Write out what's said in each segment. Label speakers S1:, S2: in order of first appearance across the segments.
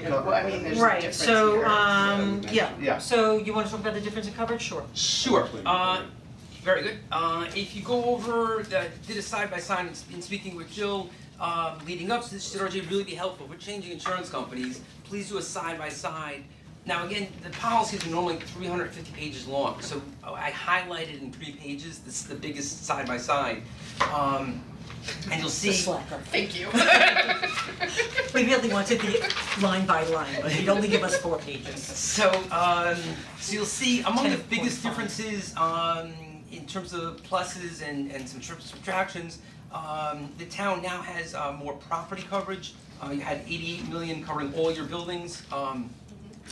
S1: Well, I mean, there's a
S2: Right,
S1: difference
S2: so
S1: here.
S2: um yeah,
S1: Yeah.
S2: so you wanna talk about the difference in coverage, sure.
S3: Sure, uh, very good. Uh, if you go over, the- did a side by side in speaking with Jill, uh, leading up to this, should RJ really be helpful, we're changing insurance companies, please do a side by side. Now, again, the policies are normally three hundred fifty pages long, so I highlighted in three pages, this is the biggest side by side. Um, and you'll see.
S2: The slacker.
S1: Thank you.
S2: We really wanted the line by line, but he'd only give us four pages.
S3: So, um, so you'll see among the
S2: 10.5.
S3: biggest differences, um, in terms of pluses and, and some tri- subtractions, um, the town now has, uh, more property coverage. Uh, you had eighty-eight million covering all your buildings, um,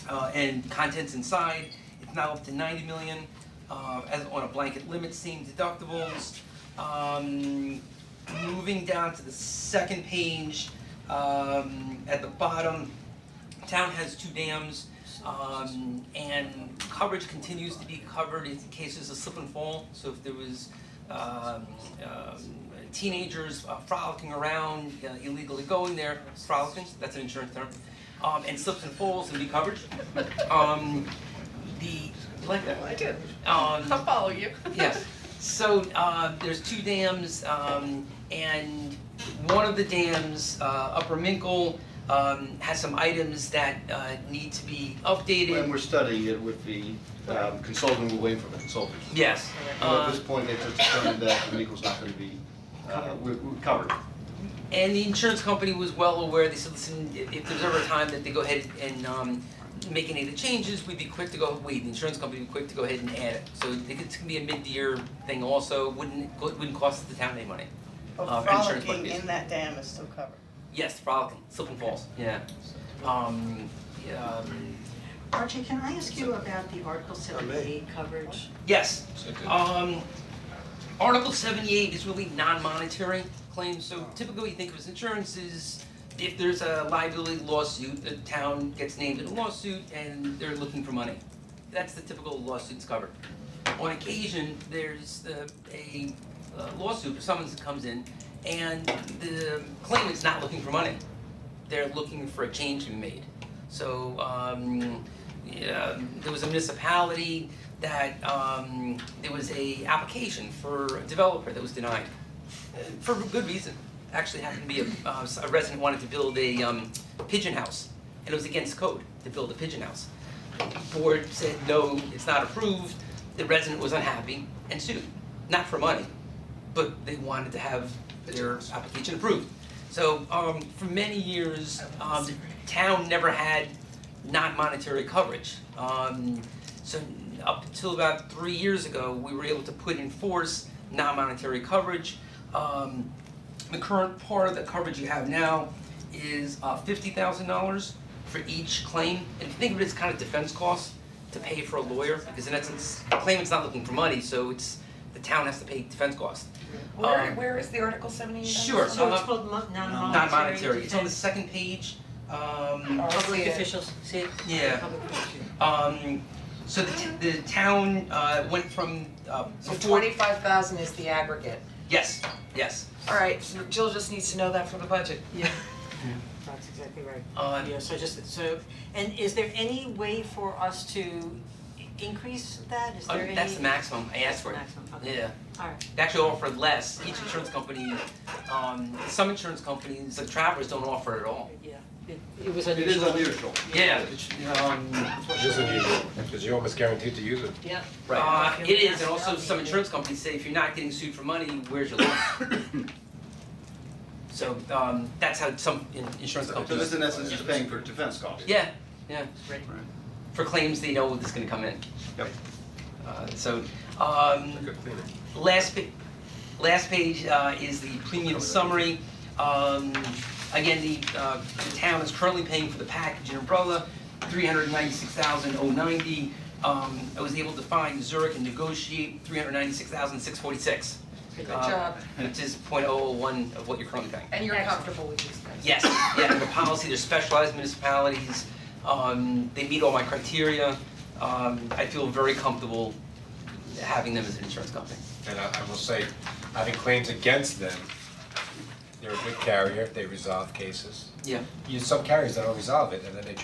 S3: uh, and contents inside. It's now up to ninety million, uh, as on a blanket limit, same deductibles. Um, moving down to the second page, um, at the bottom, town has two dams, um, and coverage continues to be covered in cases of slip and fall, so if there was, um, um, teenagers uh, frolicking around, uh, illegally going there, frolicking, that's an insurance term, um, and slips and falls and be covered. Um, the, you like that?
S1: I did.
S3: Um,
S1: I'll follow you.
S3: yes. So uh there's two dams um and one of the dams, uh Upper Minkle, um has some items that uh need to be updated.
S4: And we're studying it with the um, consultant, we're waiting for the consultant.
S3: Yes,
S4: And at
S3: uh
S4: this point, they've just determined that the Nichols not gonna be, uh, we're we're covered.
S3: and the insurance company was well aware, they said, listen, if if there's ever a time that they go ahead and um make any of the changes, we'd be quick to go, wait, the insurance company would be quick to go ahead and add it. So they could- it's gonna be a mid-year thing also, wouldn't wouldn't cost the town any money.
S1: But
S3: Uh, insurance
S1: frolicking
S3: companies.
S1: in that dam is still covered.
S3: Yes, frolicking, slip and falls, yeah. Um, yeah, um,
S2: Archie, can I ask you about the Article seventy-eight coverage?
S3: yes, um, Article seventy-eight is really non-monetary claims, so typically you think of as insurance is if there's a liability lawsuit, the town gets named in a lawsuit and they're looking for money. That's the typical lawsuits covered. On occasion, there's uh, a uh, lawsuit or someone that comes in and the claimant's not looking for money. They're looking for a change to be made. So um yeah, there was a municipality that um there was a application for a developer that was denied. uh, For good reason. Actually happened to be a uh, a resident wanted to build a um pigeon house and it was against code to build a pigeon house. The Board said, no, it's not approved, the resident was unhappy and sued, not for money, but they wanted to have their application approved. So um for many years, um the town never had non-monetary coverage. Um so up until about three years ago, we were able to put in force non-monetary coverage. Um the current part of the coverage you have now is uh fifty thousand dollars for each claim. And think of it as kind of defense costs to pay for a lawyer, because in essence, the claimant's not looking for money, so it's, the town has to pay defense costs.
S5: Where
S3: Um,
S5: where is the Article seventy eight?
S3: Sure,
S2: So it's called mon- non-monetary.
S3: Not monetary, it's on the
S2: defense.
S3: second page, um,
S5: Alright.
S2: Public
S5: See it.
S2: officials, see it?
S3: Yeah.
S2: Public officials.
S3: um, so the, t- the town, uh, went from, uh,
S5: So
S3: before,
S5: twenty five thousand is the aggregate.
S3: yes, yes,
S5: Alright, Jill just needs to know that for the budget.
S2: Yeah. That's exactly right.
S3: uh,
S2: Yeah, so just, so, and is there any way for us to i- increase that? Is
S3: uh,
S2: there any?
S3: that's the maximum, I asked for it,
S2: Maximum, okay.
S3: yeah.
S2: Alright,
S3: They actually offer less, each insurance company, um, some insurance companies, like Travelers don't offer it at all.
S2: yeah, it, it was
S4: It is
S2: unusual.
S4: unusual.
S3: Yeah, it's, um,
S6: Which is unusual, because you're almost guaranteed to use it.
S2: Yeah.
S3: Uh,
S2: Right.
S3: it is, and also some insurance companies say if you're not getting sued for money, where's your loss? So, um, that's how some in- insurance
S4: So this
S3: companies,
S4: in essence is paying for defense costs.
S3: yeah, yeah,
S2: Right.
S3: for claims they know is gonna come in.
S4: Yep.
S3: Uh, so, um, last pa- last page, uh, is the premium summary. Um, again, the, uh, the town is currently paying for the package and umbrella, three hundred ninety-six thousand oh ninety. Um, I was able to find Zurich and negotiate three hundred ninety-six thousand six forty-six.
S5: Good
S3: Uh,
S5: job,
S3: Which is point oh one of what you're currently paying.
S5: and you're comfortable with these guys.
S3: Yes, yeah, the policy, they're specialized municipalities, um, they meet all my criteria, um, I feel very comfortable having them as an insurance company.
S6: And I, I will say, having claims against them, they're a good carrier, they resolve cases.
S3: Yeah.
S6: You, some carriers that don't resolve it, and then they